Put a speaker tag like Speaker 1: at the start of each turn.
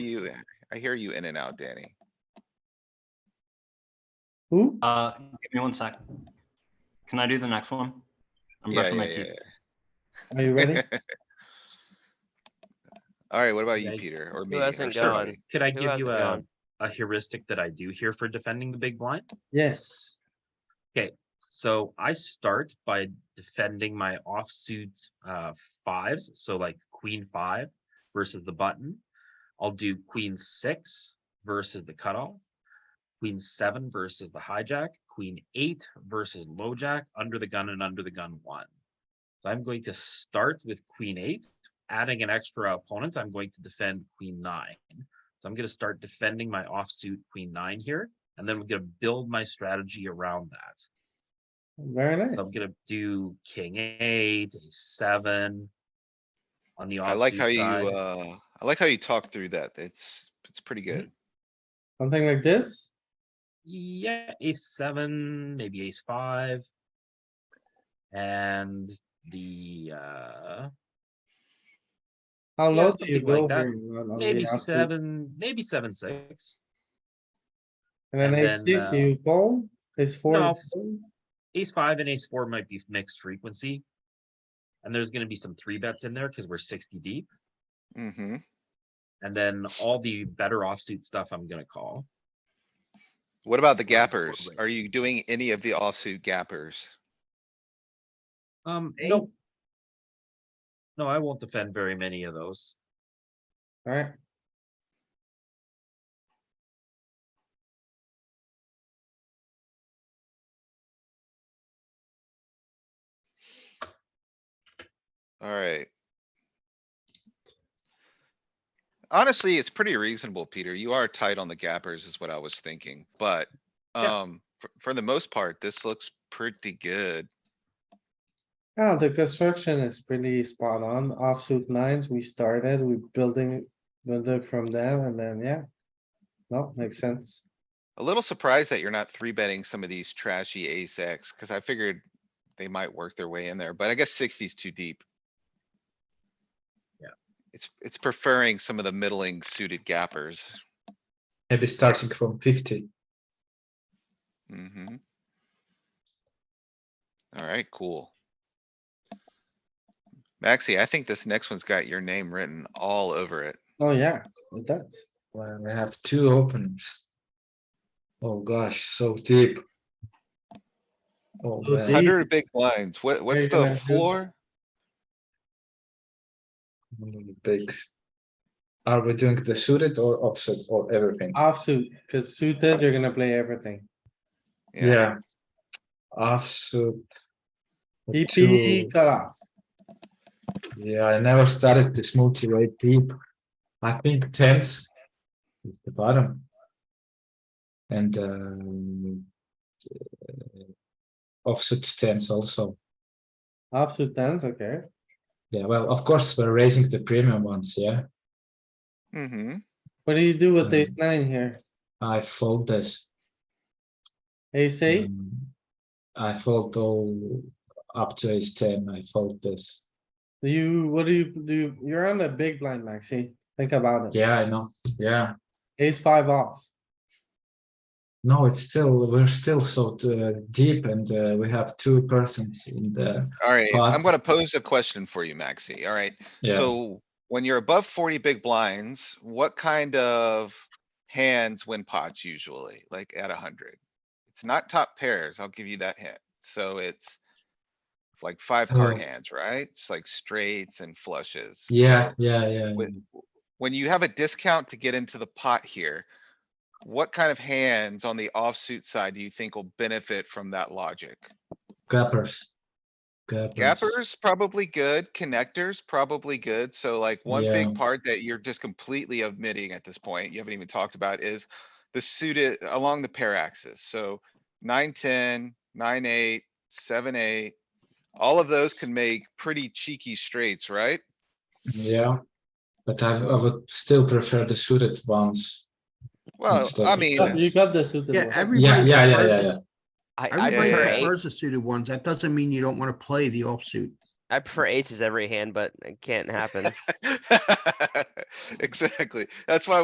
Speaker 1: You, eh, I hear you in and out, Danny.
Speaker 2: Who?
Speaker 3: Uh, give me one sec. Can I do the next one? I'm
Speaker 1: Yeah,
Speaker 3: brushing my
Speaker 1: yeah,
Speaker 3: teeth.
Speaker 1: yeah,
Speaker 2: Are you ready?
Speaker 1: yeah. Alright, what about you,
Speaker 4: Yeah,
Speaker 1: Peter, or me?
Speaker 5: Who
Speaker 1: or
Speaker 5: hasn't
Speaker 1: somebody?
Speaker 5: gone?
Speaker 4: Could I
Speaker 5: Who
Speaker 4: give
Speaker 5: hasn't
Speaker 4: you a,
Speaker 5: gone?
Speaker 4: a heuristic that I do here for defending the big blind?
Speaker 2: Yes.
Speaker 4: So I start by defending my offsuit uh fives, so like queen five versus the button. I'll do queen six versus the cutoff, queen seven versus the hijack, queen eight versus low jack, under the gun and under the gun one. So I'm going to start with queen eight, adding an extra opponent, I'm going to defend queen nine. So I'm gonna start defending my offsuit queen nine here, and then we're gonna build my strategy around that.
Speaker 2: Very nice.
Speaker 4: So I'm gonna do king eight, a seven. On the
Speaker 1: I like how
Speaker 4: offsuit
Speaker 1: you,
Speaker 4: side.
Speaker 1: uh, I like how you talk through that. It's, it's pretty
Speaker 4: Mm-hmm.
Speaker 1: good.
Speaker 2: Something like this?
Speaker 4: Yeah, ace seven, maybe ace five. And the uh,
Speaker 2: How
Speaker 4: Yeah,
Speaker 2: low do you
Speaker 4: something
Speaker 2: go?
Speaker 4: like that.
Speaker 2: here on- on the
Speaker 4: maybe
Speaker 2: offsuit?
Speaker 4: seven, maybe seven, six.
Speaker 2: And then
Speaker 4: and
Speaker 2: ace
Speaker 4: then,
Speaker 2: six,
Speaker 4: uh,
Speaker 2: you fold, ace four. you
Speaker 4: No.
Speaker 2: fold?
Speaker 4: Ace five and ace four might be mixed frequency. And there's gonna be some three bets in there because we're sixty deep.
Speaker 1: Mm-hmm.
Speaker 4: And then all the better offsuit stuff I'm gonna call.
Speaker 1: What about the
Speaker 4: Right,
Speaker 1: gappers?
Speaker 4: totally.
Speaker 1: Are you doing any of the offsuit gappers?
Speaker 4: Um,
Speaker 2: Eight.
Speaker 4: no. No, I won't defend very many of those.
Speaker 2: Alright,
Speaker 1: Alright. Honestly, it's pretty reasonable, Peter. You are tight on the gappers is what I was thinking, but,
Speaker 4: Yeah.
Speaker 1: um, for, for the most part, this looks pretty good.
Speaker 2: now Oh, the construction is pretty spot on. Offsuit nines, we started, we building, build it from them and then, yeah. No, makes sense.
Speaker 1: A little surprised that you're not three betting some of these trashy ace X, cuz I figured they might work their way in there, but I guess sixty's too deep.
Speaker 4: Yeah.
Speaker 1: It's, it's preferring some of the middling suited gappers.
Speaker 6: Maybe starting from 50.
Speaker 1: Mm-hmm. Alright, cool. Maxi, I think this next one's got your name written all over it.
Speaker 2: Oh, yeah, it does.
Speaker 6: Well, we have two openers. Oh gosh, so deep. Oh
Speaker 2: So
Speaker 6: man,
Speaker 2: deep.
Speaker 1: Hundred big blinds. What, what's
Speaker 2: you
Speaker 1: the
Speaker 2: gonna do?
Speaker 1: floor?
Speaker 6: mm, big. Are we doing the suited or offset or everything?
Speaker 2: Offsuit, cuz suited, you're gonna play everything.
Speaker 6: Yeah. Offsuit. the
Speaker 2: EP
Speaker 6: two-
Speaker 2: cut off.
Speaker 6: Yeah, I never started this multi-way deep. I think tens is the bottom. And um, uh, offset tens also.
Speaker 2: Offsuit tens, okay.
Speaker 6: Yeah, well, of course, we're raising the premium ones, yeah.
Speaker 1: Mm-hmm.
Speaker 2: What do you do with
Speaker 6: Mhm.
Speaker 2: ace nine here?
Speaker 6: I fold this.
Speaker 2: Ace eight?
Speaker 6: um, I fold all up to ace ten, I fold this.
Speaker 2: Do You, what do you do? You're on the big blind, Maxi. Think about it.
Speaker 6: Yeah, I know, yeah.
Speaker 2: Ace five off.
Speaker 6: No, it's still, we're still so uh, deep and uh, we have two persons in the,
Speaker 1: Alright, I'm
Speaker 6: But-
Speaker 1: gonna pose a question for you, Maxi, alright?
Speaker 6: yeah.
Speaker 1: So when you're above forty big blinds, what kind of hands win pots usually, like at hundred? It's not top pairs, I'll give you that hint. So it's like five card
Speaker 6: Oh.
Speaker 1: hands, right? It's like straights and flushes.
Speaker 6: Yeah, yeah, yeah.
Speaker 1: When, when you have a discount to get into the pot here, what kind of hands on the offsuit side do you think will benefit from that logic?
Speaker 6: Gappers. Gappers.
Speaker 1: Gappers probably good, connectors probably good, so like one
Speaker 6: Yeah.
Speaker 1: big part that you're just completely omitting at this point, you haven't even talked about is. The suited along the pair axis, so nine, ten, nine, eight, seven, eight. All of those can make pretty cheeky straights, right?
Speaker 6: Yeah. But I, I
Speaker 1: So-
Speaker 6: would still prefer the suited ones.
Speaker 1: Well,
Speaker 6: Instead
Speaker 1: I
Speaker 6: of-
Speaker 1: mean.
Speaker 2: You got the suited
Speaker 7: Yeah,
Speaker 2: one.
Speaker 7: everybody.
Speaker 6: yeah, yeah,
Speaker 7: prefers
Speaker 6: yeah,
Speaker 7: the-
Speaker 5: I, I
Speaker 7: Everybody
Speaker 5: prefer,
Speaker 1: yeah.
Speaker 5: ace-
Speaker 7: prefers the suited ones. That doesn't mean you don't wanna play the offsuit.
Speaker 5: I prefer aces every hand, but it can't happen.
Speaker 1: Exactly. That's why